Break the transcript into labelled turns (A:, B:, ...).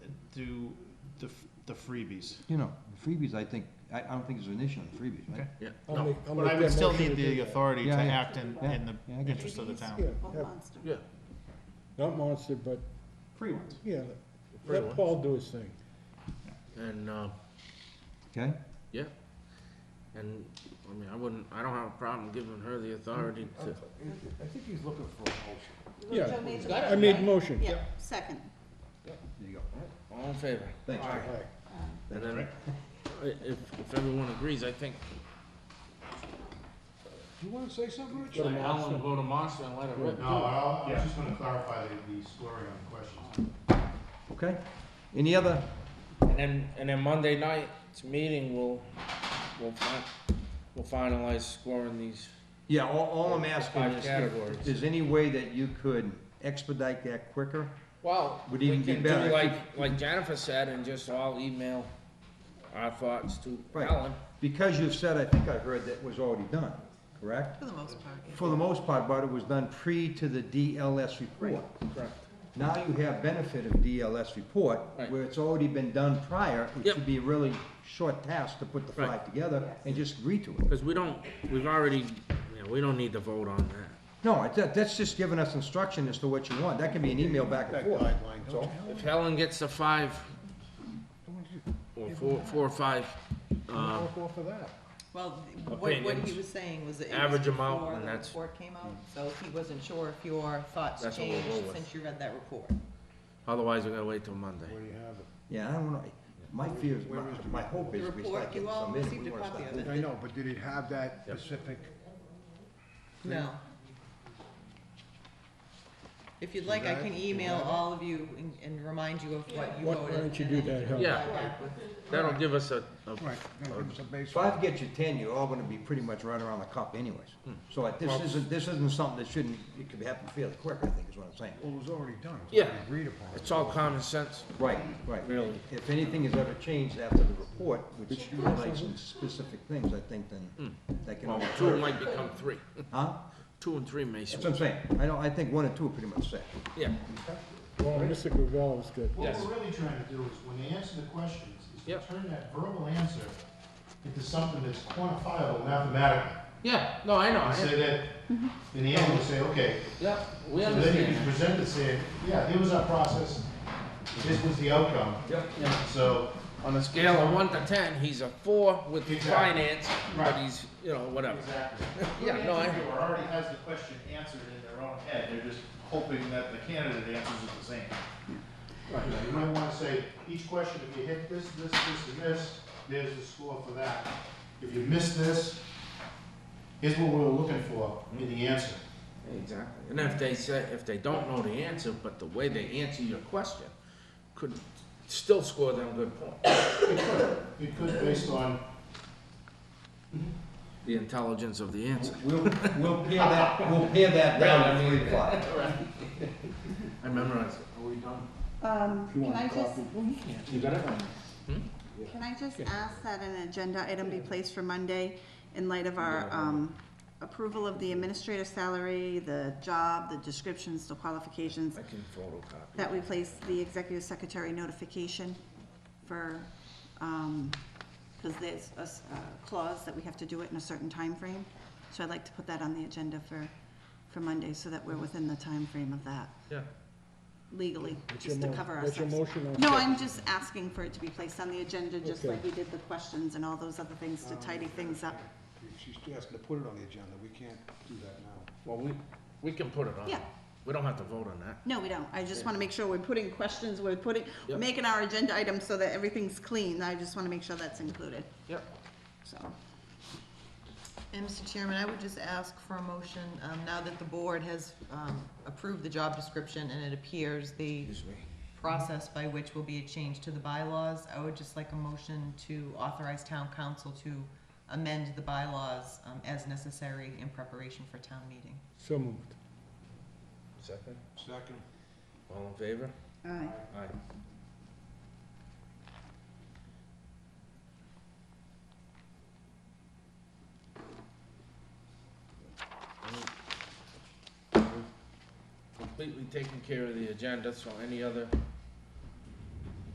A: through the, f- the freebies.
B: You know, freebies, I think, I, I don't think there's an issue on freebies, right?
A: Okay.
C: Yeah.
D: I'll
C: No.
D: make- I'll
A: But
D: make
A: I
D: that
A: would still
D: motion to
A: need
D: do
A: the uh,
D: that.
A: authority to
B: Yeah, yeah.
A: act in,
B: Yeah,
A: in the
B: yeah, I get you.
A: interest of the town.
D: Yeah,
E: Well,
D: yeah,
E: monster.
C: Yeah.
D: not monster, but,
A: Free ones.
D: yeah,
C: Pretty
D: let
C: much.
D: Paul do his thing.
C: And, uh,
B: Okay?
C: yeah. And, I mean, I wouldn't, I don't have a problem giving her the authority to,
F: I think he's looking for a motion.
D: Yeah,
E: Joe made the
D: I
E: motion,
D: made
E: right?
D: motion.
E: Yeah, second.
B: There you go.
C: all in favor?
B: Thanks. Rick.
D: Aye.
C: And then, i- if, if everyone agrees, I think,
F: Do you wanna say something, Rich?
C: let Alan go to Marcia and let her rip.
G: No, I I was just gonna clarify the, the scoring on the questions.
B: Okay? Any other,
C: And then, and then Monday night's meeting, we'll, we'll fi- we'll finalize scoring these.
B: yeah, all, all I'm asking
C: Five
B: is,
C: categories.
B: if there's any way that you could expedite that quicker?
C: Well,
B: Would
C: we
B: even be
C: can do
B: better if
C: like, like Jennifer said, and just all email our thoughts to
B: Right.
C: Alan.
B: Because you've said, I think I heard that was already done, correct?
E: For the most part. yeah.
B: For the most part, but it was done pre to the DLS report.
C: Correct.
B: Now you have benefit of DLS report,
C: Right.
B: where it's already been done prior. It
C: Yep.
B: should be a really short task to put the
C: Right.
B: five together and just agree to it.
C: Cause we don't, we've already, you know, we don't need to vote on that.
B: No, it- that, that's just giving us instruction as to what you want. That can be an email back and forth. That's all.
C: If Helen gets the five, or four, four or five, um,
F: I'll go for that.
E: Well, what, what he
C: Opinions.
E: was saying was that it was
C: Average them out,
E: before
C: and
E: the
C: that's- Mm.
E: report came out, so he wasn't sure if your thoughts
C: That's what we'll
E: changed
C: go with.
E: since you read that report.
C: otherwise we're gonna wait till Monday.
F: Where do you have it?
B: Yeah, I don't know. My fear is, my, my hope is
E: The
B: we start
E: report,
B: getting
E: you all
B: some in.
E: received
B: We
E: a
B: wanna
E: copy
B: start
E: of it.
F: I know, but did it have that specific?
E: No. If you'd like, I can email all of you and, and remind you of what you
D: Why-
E: voted.
D: why don't you
E: and
D: do
E: then
D: that,
E: can
D: Helen?
C: Yeah.
E: reply back with-
C: That'll give us a, a,
F: Right, gonna give us a
B: If I
F: baseline.
B: get you ten, you're all gonna be pretty much right around the cup anyways. So like, this
C: Well-
B: isn't, this isn't something that shouldn't, it could happen fairly quick, I think is what I'm saying.
F: Well, it was already done, it was
C: Yeah.
F: already agreed upon.
C: it's all common sense.
B: Right, right.
C: Really.
B: If anything is ever changed after the report, which highlights some specific things, I think then that can.
C: Well,
B: only
C: two
B: hurt.
C: might become three.
B: Huh?
C: Two and three may,
B: That's what I'm saying. I don't, I think one and two are pretty much set.
C: yeah.
D: Well, Mr. Gravel is good.
C: Yes.
G: What we're really trying to do is, when they answer the questions, is to
C: Yep.
G: turn that verbal answer into something that's quantifiable mathematically.
C: Yeah, no, I know,
G: And
C: I-
G: say that, then the analyst will say, okay,
C: yeah, Mm-hmm. we
G: so then you
C: understand.
G: can present it saying, yeah, here was our process, this was the outcome,
C: Yep, yeah.
G: so.
C: On a scale of one to ten, he's a four with
G: Exactly.
C: finance, but
G: Right.
C: he's, you know, whatever.
G: Exactly.
C: Yeah, no, I-
G: Who already has the question answered in their own head, they're just hoping that the candidate answers it the same. You might wanna say, each question, if you hit this, this, this, and this, there's the score for that. If you miss this, here's what we were looking for in the answer.
C: Exactly. And if they say, if they don't know the answer, but the way they answer your question could still score them good points.
G: It could, it could based on,
C: The intelligence of the answer.
B: We'll, we'll pare that, we'll pare that down at three o'clock.
C: I memorized it.
E: Um, can I just,
B: You got it?
E: can I just ask that an agenda item be placed for Monday in light of our, um, approval of the administrative salary, the job, the descriptions, the qualifications,
C: I can photocopy.
E: that we place the executive secretary notification for, um, because there's a s- a clause that we have to do it in a certain time frame. So I'd like to put that on the agenda for, for Monday, so that we're within the time frame of that
C: Yeah.
E: legally,
D: That's your
E: just to
D: mo-
E: cover
D: that's your
E: ourselves.
D: motion on
E: No,
D: second.
E: I'm just asking for it to be placed on the agenda, just
D: Okay.
E: like we did the questions and all those other things to tidy things up.
F: She's asking to put it on the agenda, we can't do that now.
C: Well, we, we can put it on.
E: Yeah.
C: We don't have to vote on that.
E: No, we don't. I just wanna make sure we're putting questions, we're putting, we're
C: Yep.
E: making our agenda items so that everything's clean. I just wanna make sure that's included.
C: Yep.
E: So. And Mr. Chairman, I would just ask for a motion, um, now that the board has, um, approved the job description and it appears the
C: Excuse me.
E: process by which will be a change to the bylaws, I would just like a motion to authorize town council to amend the bylaws, um, as necessary in preparation for town meeting.
D: So moved.
C: Second?
F: Second.
C: All in favor?
E: Aye.
C: Aye. Completely taken care of the agenda, so any other